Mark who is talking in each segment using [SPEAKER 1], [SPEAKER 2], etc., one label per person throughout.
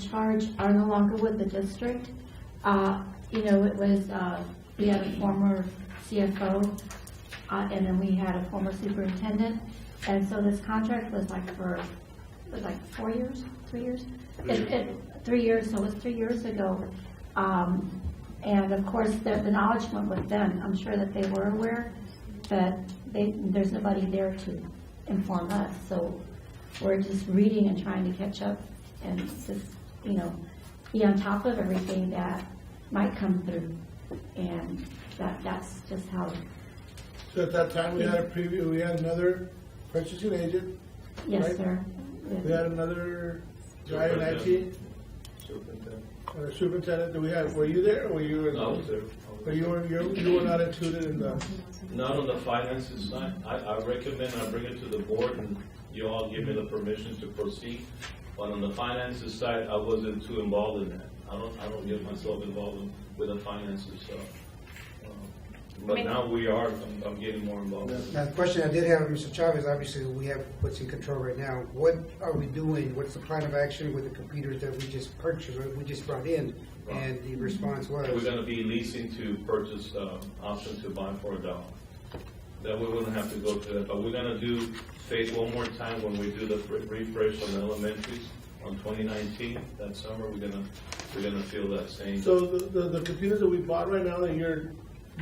[SPEAKER 1] in charge are no longer with the district. Uh, You know, it was, uh, we had a former CFO, uh, and then we had a former superintendent. And so this contract was like for, it was like four years, three years? It- it- Three years, so it was three years ago. Um, And of course, the the knowledge went with them. I'm sure that they were aware, but they, there's nobody there to inform us. So we're just reading and trying to catch up and just, you know, be on top of everything that might come through. And that, that's just how,
[SPEAKER 2] So at that time, we had a preview, we had another purchasing agent,
[SPEAKER 1] yes,
[SPEAKER 2] Right.
[SPEAKER 1] sir.
[SPEAKER 2] we had another guy in IT, or superintendent, that we had, were you there, or were you? in-
[SPEAKER 3] No, I was there.
[SPEAKER 2] But you were, you you were not included in the,
[SPEAKER 3] Not on the finances side. I, I recommend I bring it to the board and you all give me the permission to proceed. But on the finances side, I wasn't too involved in that. I don't, I don't get myself involved in- with the finances, so. uh, But now we are, I'm, I'm getting more involved.
[SPEAKER 4] Now, the question I did have, Mr. Chavez, obviously, we have what's in control right now. What are we doing? What's the plan of action with the computers that we just purchased, or we just brought in? And the response
[SPEAKER 3] We're
[SPEAKER 4] was,
[SPEAKER 3] gonna be leasing to purchase, uh, option to buy for a dollar. That we wouldn't have to go through that, but we're gonna do phase one more time when we do the re- refresh on the elementaries on twenty nineteen, that summer, we're gonna, we're gonna feel that same.
[SPEAKER 2] so the, the- the computers that we bought right now, that you're,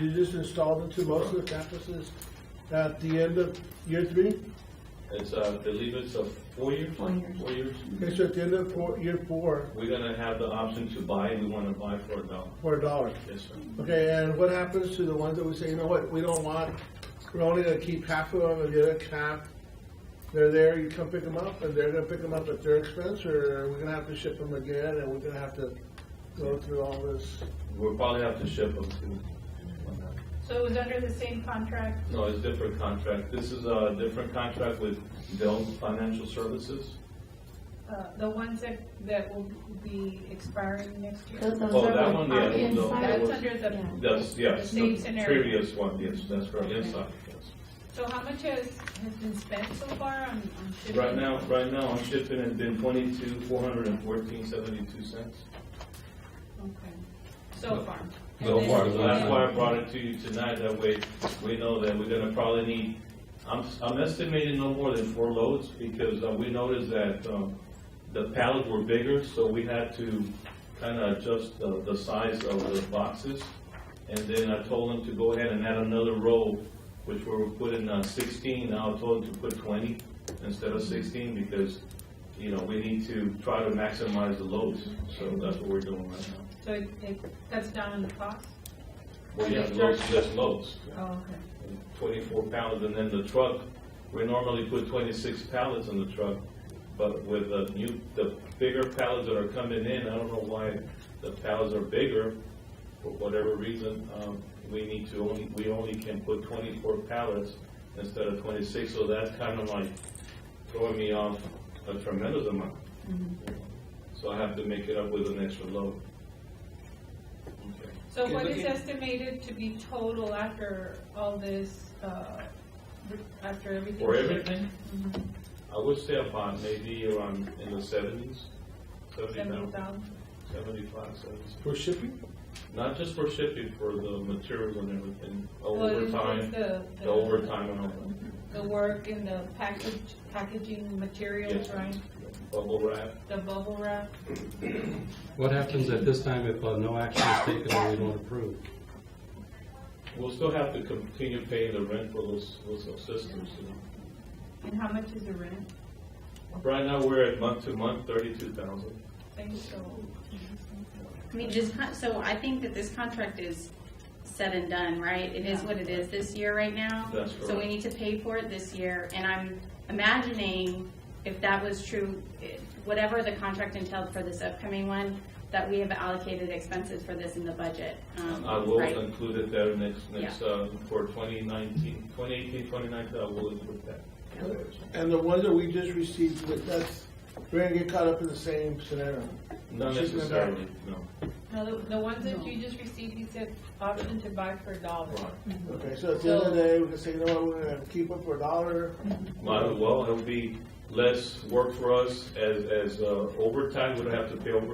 [SPEAKER 2] you just installed into most of the campuses at the end of year three?
[SPEAKER 3] It's, uh, I believe it's a four year?
[SPEAKER 1] Four years.
[SPEAKER 3] Four years.
[SPEAKER 2] Okay, so at the end of four, year four,
[SPEAKER 3] We're gonna have the option to buy, we wanna buy for a dollar.
[SPEAKER 2] for a dollar.
[SPEAKER 3] Yes, sir.
[SPEAKER 2] Okay, and what happens to the ones that we say, you know what, we don't want, we're only gonna keep half of them, and the other half, they're there, you come pick them up, and they're gonna pick them up at their expense, or we're gonna have to ship them again, and we're gonna have to go through all this?
[SPEAKER 3] We'll probably have to ship them to.
[SPEAKER 5] So it was under the same contract?
[SPEAKER 3] No, it's different contract. This is a different contract with Dell Financial Services.
[SPEAKER 5] Uh, The ones that, that will be expiring next year?
[SPEAKER 1] Those those
[SPEAKER 3] Oh,
[SPEAKER 1] are
[SPEAKER 3] that
[SPEAKER 1] like
[SPEAKER 3] one, yeah,
[SPEAKER 1] our
[SPEAKER 3] no,
[SPEAKER 1] inside.
[SPEAKER 3] that
[SPEAKER 5] That's
[SPEAKER 3] was-
[SPEAKER 5] under the,
[SPEAKER 1] Yeah.
[SPEAKER 3] That's, yes,
[SPEAKER 5] The same
[SPEAKER 3] the
[SPEAKER 5] scenario.
[SPEAKER 3] previous one, yes, that's right, inside, yes.
[SPEAKER 5] so how much has, has been spent so far on, on shipping?
[SPEAKER 3] Right now, right now, I'm shipping has been twenty-two, four hundred and fourteen, seventy-two cents.
[SPEAKER 5] Okay, so far.
[SPEAKER 3] So
[SPEAKER 5] And
[SPEAKER 3] far,
[SPEAKER 5] then-
[SPEAKER 3] so that's why I brought it to you tonight, that way we know that we're gonna probably need, I'm, I'm estimating no more than four loads, because uh, we noticed that, um, the pallets were bigger, so we had to kinda adjust the, the size of the boxes. And then I told them to go ahead and add another row, which we were putting uh, sixteen, now I told them to put twenty instead of sixteen, because, you know, we need to try to maximize the loads, so that's what we're doing right now.
[SPEAKER 5] So it, it cuts down on the cost?
[SPEAKER 3] Well, yeah, loads, just loads,
[SPEAKER 5] Oh, okay.
[SPEAKER 3] twenty-four pounds, and then the truck, we normally put twenty-six pallets in the truck, but with the new, the bigger pallets that are coming in, I don't know why the pallets are bigger, for whatever reason, um, we need to only, we only can put twenty-four pallets instead of twenty-six, so that's kind of like throwing me off a tremendous amount. So I have to make it up with an extra load. Okay.
[SPEAKER 5] So what
[SPEAKER 3] Okay.
[SPEAKER 5] is estimated to be total after all this, uh, re- after everything?
[SPEAKER 3] For everything? I would say about maybe around in the seventies,
[SPEAKER 5] Seventy
[SPEAKER 3] seventy-five,
[SPEAKER 5] thousand?
[SPEAKER 3] seventy-five, seventy.
[SPEAKER 2] For shipping?
[SPEAKER 3] Not just for shipping, for the materials and everything, overtime,
[SPEAKER 5] The
[SPEAKER 3] the overtime and all that.
[SPEAKER 5] The work and the package, packaging materials,
[SPEAKER 3] Yes.
[SPEAKER 5] right?
[SPEAKER 3] Bubble wrap,
[SPEAKER 5] The bubble wrap?
[SPEAKER 6] What happens at this time if uh, no action is taken or we don't approve?
[SPEAKER 3] we'll still have to continue paying the rent for those, those systems, you know.
[SPEAKER 5] And how much is the rent?
[SPEAKER 3] Right now, we're at month to month, thirty-two thousand.
[SPEAKER 5] Thanks, so.
[SPEAKER 7] I mean, just, con- so I think that this contract is said and done, right? It is what it is this year right now.
[SPEAKER 3] That's
[SPEAKER 7] So we
[SPEAKER 3] correct.
[SPEAKER 7] need to pay for it this year, and I'm imagining if that was true, eh, whatever the contract entailed for this upcoming one, that we have allocated expenses for this in the budget. um,
[SPEAKER 3] I will
[SPEAKER 7] right?
[SPEAKER 3] include it there next, next, uh, for 2019, 2018, 2019. I will include that.
[SPEAKER 2] And the ones that we just received, but that's, we're gonna get caught up in the same scenario.
[SPEAKER 3] Not
[SPEAKER 2] Shipping and back.
[SPEAKER 3] necessarily, no.
[SPEAKER 5] No, the, the ones that you just received, he said option to buy for a dollar.
[SPEAKER 3] Right.
[SPEAKER 2] Okay, so at the end of the day, we can say, you know what, we're gonna keep them for a dollar,
[SPEAKER 3] Might as well, it'll be less work for us as, as uh, overtime, we don't have to pay overtime